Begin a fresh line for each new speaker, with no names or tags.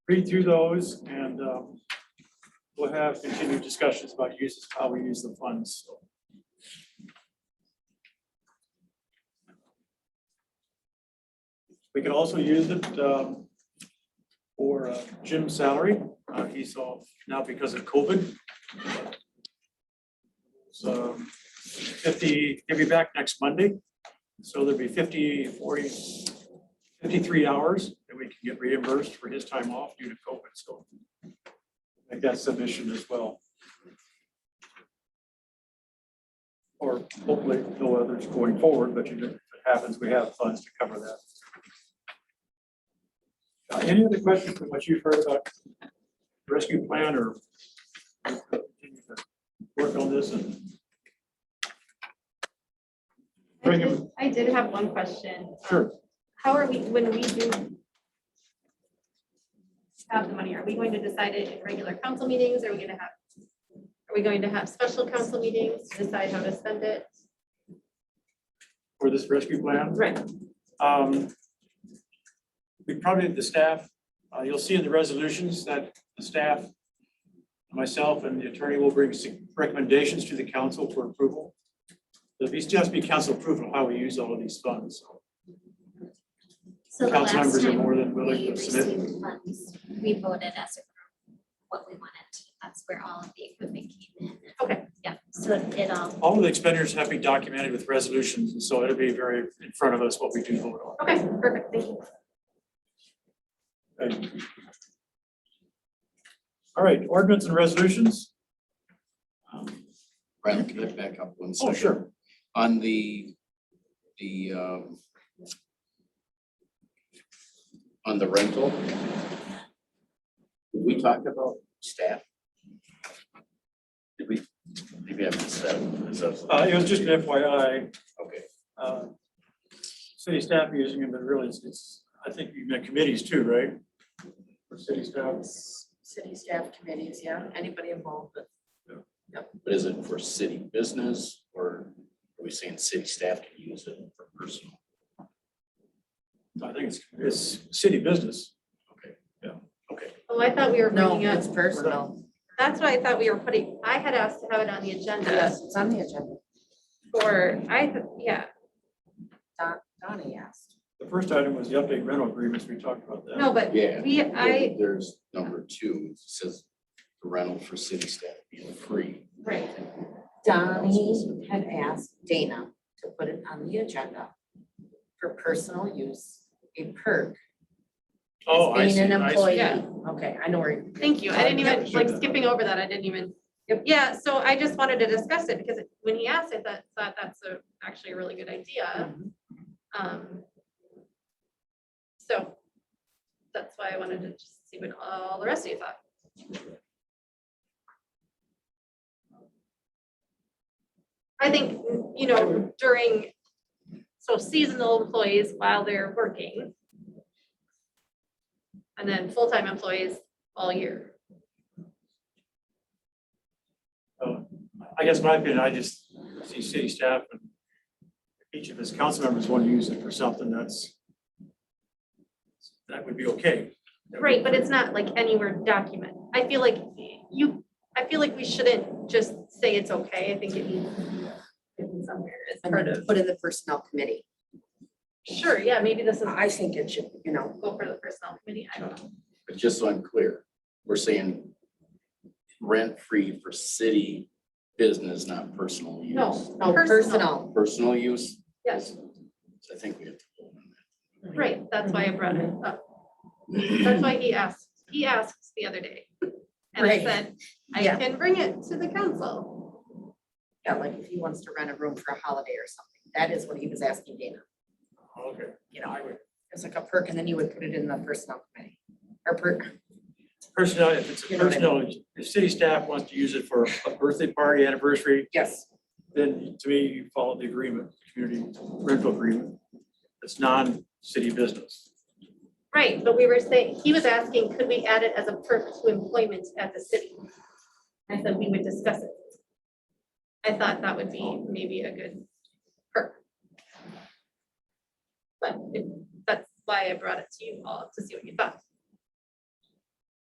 read through those and um, we'll have continued discussions about uses, how we use the funds. We can also use it um, for uh, Jim's salary. Uh, He's off now because of COVID. So fifty, he'll be back next Monday. So there'll be 50, 40, 53 hours that we can get reimbursed for his time off due to COVID. So I think that's submission as well. Or hopefully no others going forward, but you know, if it happens, we have funds to cover that. Uh, Any other questions from what you've heard about rescue plan or work on this and
I
Bring
did, I did have one question.
Sure.
How are we, when we do have the money, are we going to decide it in regular council meetings? Are we gonna have, are we going to have special council meetings to decide how to spend it?
for this rescue plan?
Right.
Um, We probably, the staff, uh, you'll see in the resolutions that the staff, myself and the attorney will bring sig- recommendations to the council for approval. There'll be, just be council approval of how we use all of these funds.
So the
Council
last
members are
time
more than willing
we
to submit.
received funds, we voted as a group what we wanted. That's where all of the equipment came in.
Okay.
Yeah, so it all,
All of the expenditures have been documented with resolutions, and so it'll be very in front of us what we do vote on.
Okay, perfect, thank you.
Thank you. All right, ordinance and resolutions? Um,
Brian, can I back up one
Oh,
second?
sure.
On the, the, um, on the rental, did we talk about staff? Did we, maybe I missed that. Is that-
Uh, It was just an FYI.
Okay,
uh, city staff using them, but really it's- it's, I think you meant committees too, right? For city staff.
City staff committees, yeah, anybody involved with
but is it for city business or are we saying city staff can use it for personal?
I think it's, it's city business.
Okay,
Oh, I thought we were
No,
bringing up,
it's personal.
that's what I thought we were putting, I had asked to have it on the agenda
Yes, it's on the agenda.
for, I, th- yeah,
Don, Donnie asked.
The first item was the update rental agreements. We talked about that.
no, but
yeah.
we, I,
There's number two, it says the rental for city staff being free.
right.
Donnie had asked Dana to put it on the agenda for personal use, a perk. as
Oh, I
being
see,
an
I see.
employee.
Yeah.
Okay, I know where. you're-
Thank you. I didn't
Yeah, we
even,
should
like
have.
skipping over that, I didn't even.
Yep.
Yeah, so I just wanted to discuss it because it- when he asked, I thought, thought that's a, actually a really good idea.
Mhm.
Um. So that's why I wanted to just see what all the rest of you thought. I think, you know, during, so seasonal employees while they're working. And then full-time employees all year.
So, I guess my opinion, I just see city staff and each of his council members want to use it for something that's, that would be okay. That would-
Right, but it's not like anywhere document. I feel like you, I feel like we shouldn't just say it's okay. I think it needs written somewhere as
And
part
then
of,
put in the personnel committee.
sure, yeah, maybe this is,
I think it should, you know,
go for the personnel committee. I don't know.
But just so I'm clear, we're saying rent-free for city business, not personal use.
No,
no, Oh, personal.
Personal use,
Yes,
I think we have to. vote on
right. That's why I brought it up. That's why he asked, he asked the other day. And I
Right.
said, I
Yeah.
can bring it to the council.
Yeah, like if he wants to rent a room for a holiday or something, that is what he was asking Dana,
Okay.
you know, it's like a perk and then you would put it in the personnel committee. Or perk,
Personnel, if it's
You know what I mean.
personnel, if city staff wants to use it for a birthday party, anniversary,
yes,
then to me, you follow the agreement, community rental agreement. It's non-city business.
Right, but we were saying, he was asking, could we add it as a perk to employment at the city? I said we would discuss it. I thought that would be maybe a good perk. But it- that's why I brought it to you all to see what you thought.